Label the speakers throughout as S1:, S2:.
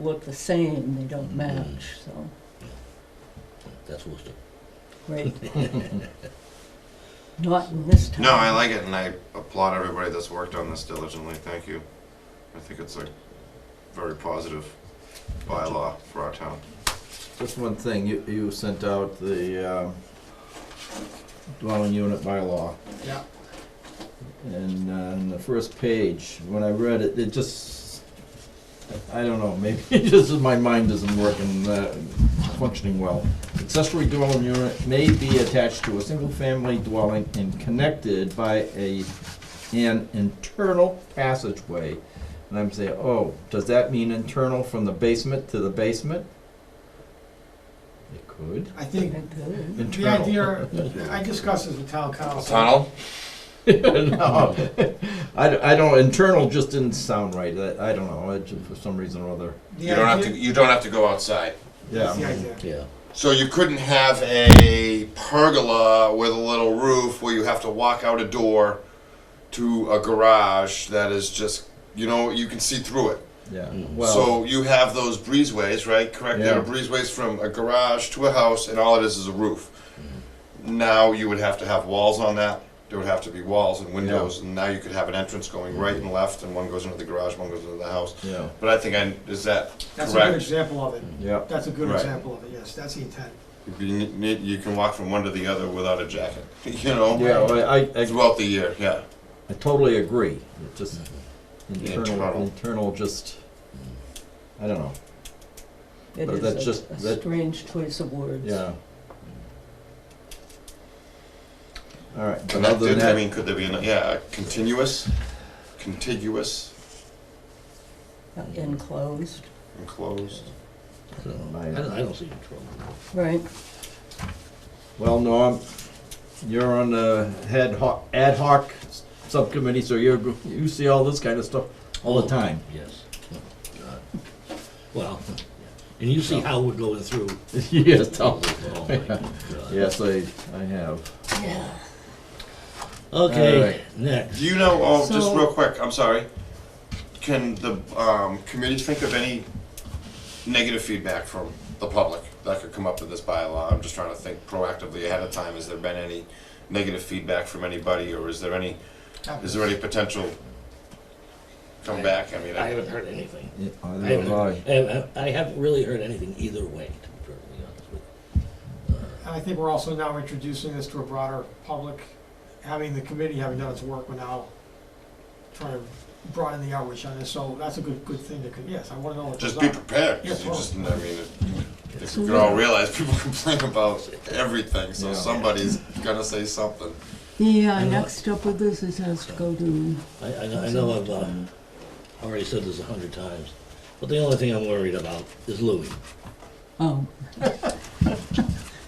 S1: look the same, they don't match, so,
S2: That's Worcester.
S1: great. Not in this town.
S3: No, I like it, and I applaud everybody that's worked on this diligently. Thank you. I think it's a very positive bylaw for our town.
S4: Just one thing, you, you sent out the um, dwelling unit bylaw.
S5: Yeah.
S4: And uh, on the first page, when I read it, it just, I don't know, maybe it just, my mind isn't working, uh, functioning well. Accessory dwelling unit may be attached to a single-family dwelling and connected by a, an internal passageway. And I'm saying, oh, does that mean internal from the basement to the basement? It could.
S5: I think
S1: It does.
S5: the
S4: Internal.
S5: idea, I discussed this with town council.
S3: Tunnel?
S4: no, I, d- I don't. Internal just didn't sound right. I, I don't know. It just, for some reason or other.
S5: The
S3: You don't have to,
S5: idea-
S3: you don't have to go outside.
S4: Yeah.
S5: That's the idea.
S2: Yeah.
S3: So you couldn't have a pergola with a little roof where you have to walk out a door to a garage that is just, you know, you can see through it.
S4: Yeah.
S2: Mm.
S4: Well.
S3: so you have those breezeways, right? Correct. There
S4: Yeah.
S3: are breezeways from a garage to a house, and all it is is a roof.
S4: Mm-hmm.
S3: Now you would have to have walls on that. There would have to be walls and windows, and now you could have an entrance going right
S4: Mm-hmm.
S3: and left, and one goes into the garage, one goes into the house.
S4: yeah.
S3: But I think I is that
S5: That's a good
S3: correct?
S5: example of it.
S4: Yeah.
S5: That's a good
S3: Right.
S5: example of it, yes, that's the intent.
S3: You, need- you can walk from one to the other without a jacket, you know,
S4: Yeah. well, I, I,
S3: throughout the year. Yeah,
S4: I totally agree. It just internal.
S3: Mm-hmm. Internal.
S4: Internal. Just. I don't know.
S1: It
S4: But
S1: is
S4: that's
S1: a-
S4: just-
S1: a
S4: that-
S1: strange choice of words.
S4: Yeah. All right. But other than
S3: connected. I
S4: that,
S3: mean, could there be an yeah a continuous, contiguous,
S1: Uh, Enclosed,
S3: enclosed?
S2: I
S4: Oh,
S2: don't, know. I don't, I don't see any trouble.
S1: right,
S4: Well, Norm, you're on the head ho- ad hoc s- subcommittee, so you're, go- you see all this kind of stuff all the time.
S2: Yes. God. Well, and you see how we're going through.
S4: Yes, tell-
S2: Oh, my God.
S4: Yes, I, I have.
S1: yeah.
S2: Okay,
S4: All right.
S2: next.
S3: Do you know, oh, just
S1: So-
S3: real quick, I'm sorry. Can the um, committee think of any negative feedback from the public that could come up with this bylaw? I'm just trying to think proactively ahead of time. Has there been any negative feedback from anybody, or is there any, is there any potential comeback? I mean,
S2: I
S3: I-
S2: haven't heard anything.
S4: Yeah, I
S2: I
S4: have
S2: haven't, I
S4: I.
S2: haven't- I haven't really heard anything either way, to be perfectly honest with
S5: And I think we're also now introducing this to a broader public, having the committee, having done its work, we're now trying to broaden the outreach on this, so that's a good, good thing to, con- yes, I wanna know what
S3: just
S5: goes
S3: be
S5: on.
S3: prepared, 'cause
S5: Yeah,
S3: you
S5: sure.
S3: just, I mean, I think we could all realize people complain about everything, so
S4: Yeah.
S3: somebody's gonna say something.
S1: Yeah,
S2: And what-
S1: uh, next up with this, it has to go to,
S2: you. I, I know- I know I've uh, already said this a hundred times, but the only thing I'm worried about is Louis.
S1: oh.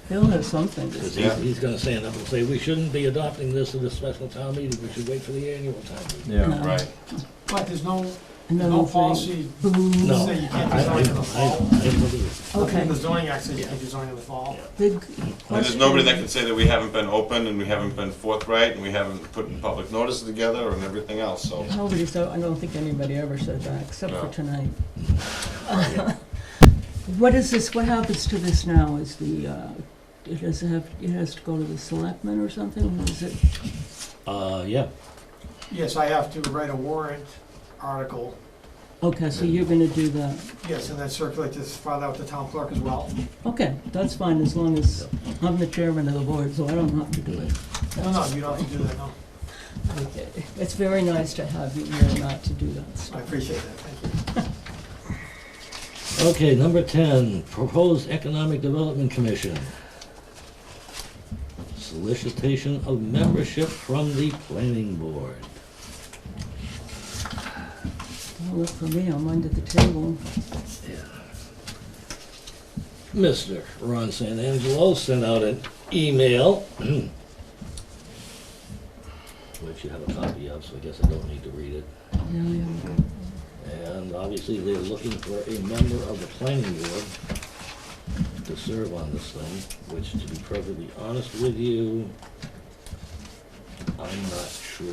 S1: He'll have something to
S2: Because
S1: say.
S2: he's, he's gonna stand up and say, we shouldn't be adopting this at a special town meeting, we should wait for the annual town meeting.
S4: Yeah,
S3: Right.
S5: But there's no, there's
S1: Another
S5: no
S1: thing.
S5: policy,
S1: Boo.
S2: No,
S5: Say you
S2: I,
S5: can't
S2: I, I
S5: design for the fall.
S2: I believe,
S5: nothing in
S1: Okay,
S5: the zoning act says you can design in the fall.
S2: Yeah.
S1: big
S3: And there's nobody that can say that we haven't been open and we haven't been forthright and we haven't put in public notices together and everything else, so.
S1: Nobody said, I don't think anybody ever said that, except for
S3: No.
S1: tonight. What is this, what happens to this now, is the, uh, it has to have, it has to go to the selectmen or something, What is it?
S2: uh, yeah.
S5: Yes, I have to write a warrant article,
S1: Okay, so you're gonna do that,
S5: yes, and then circulate this, file that with the town clerk as well.
S1: okay, that's fine, as long as I'm the chairman of the board, so I don't have to do it.
S5: No, no, you don't have to do that, no.
S1: Okay. It's very nice to have you here not to do that
S5: I
S1: stuff.
S5: appreciate that, thank you.
S2: Okay, number ten, proposed economic development commission. Solicitation of membership from the planning board.
S1: Don't look for me, I'm under the table.
S2: Mr. Ron Santangelo sent out an email, which you have a copy of, so I guess I don't need to read it.
S1: Yeah, yeah.
S2: And obviously, they're looking for a member of the planning board to serve on this thing, which, to be perfectly honest with you, I'm not sure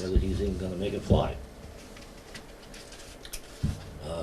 S2: whether he's even gonna make it fly.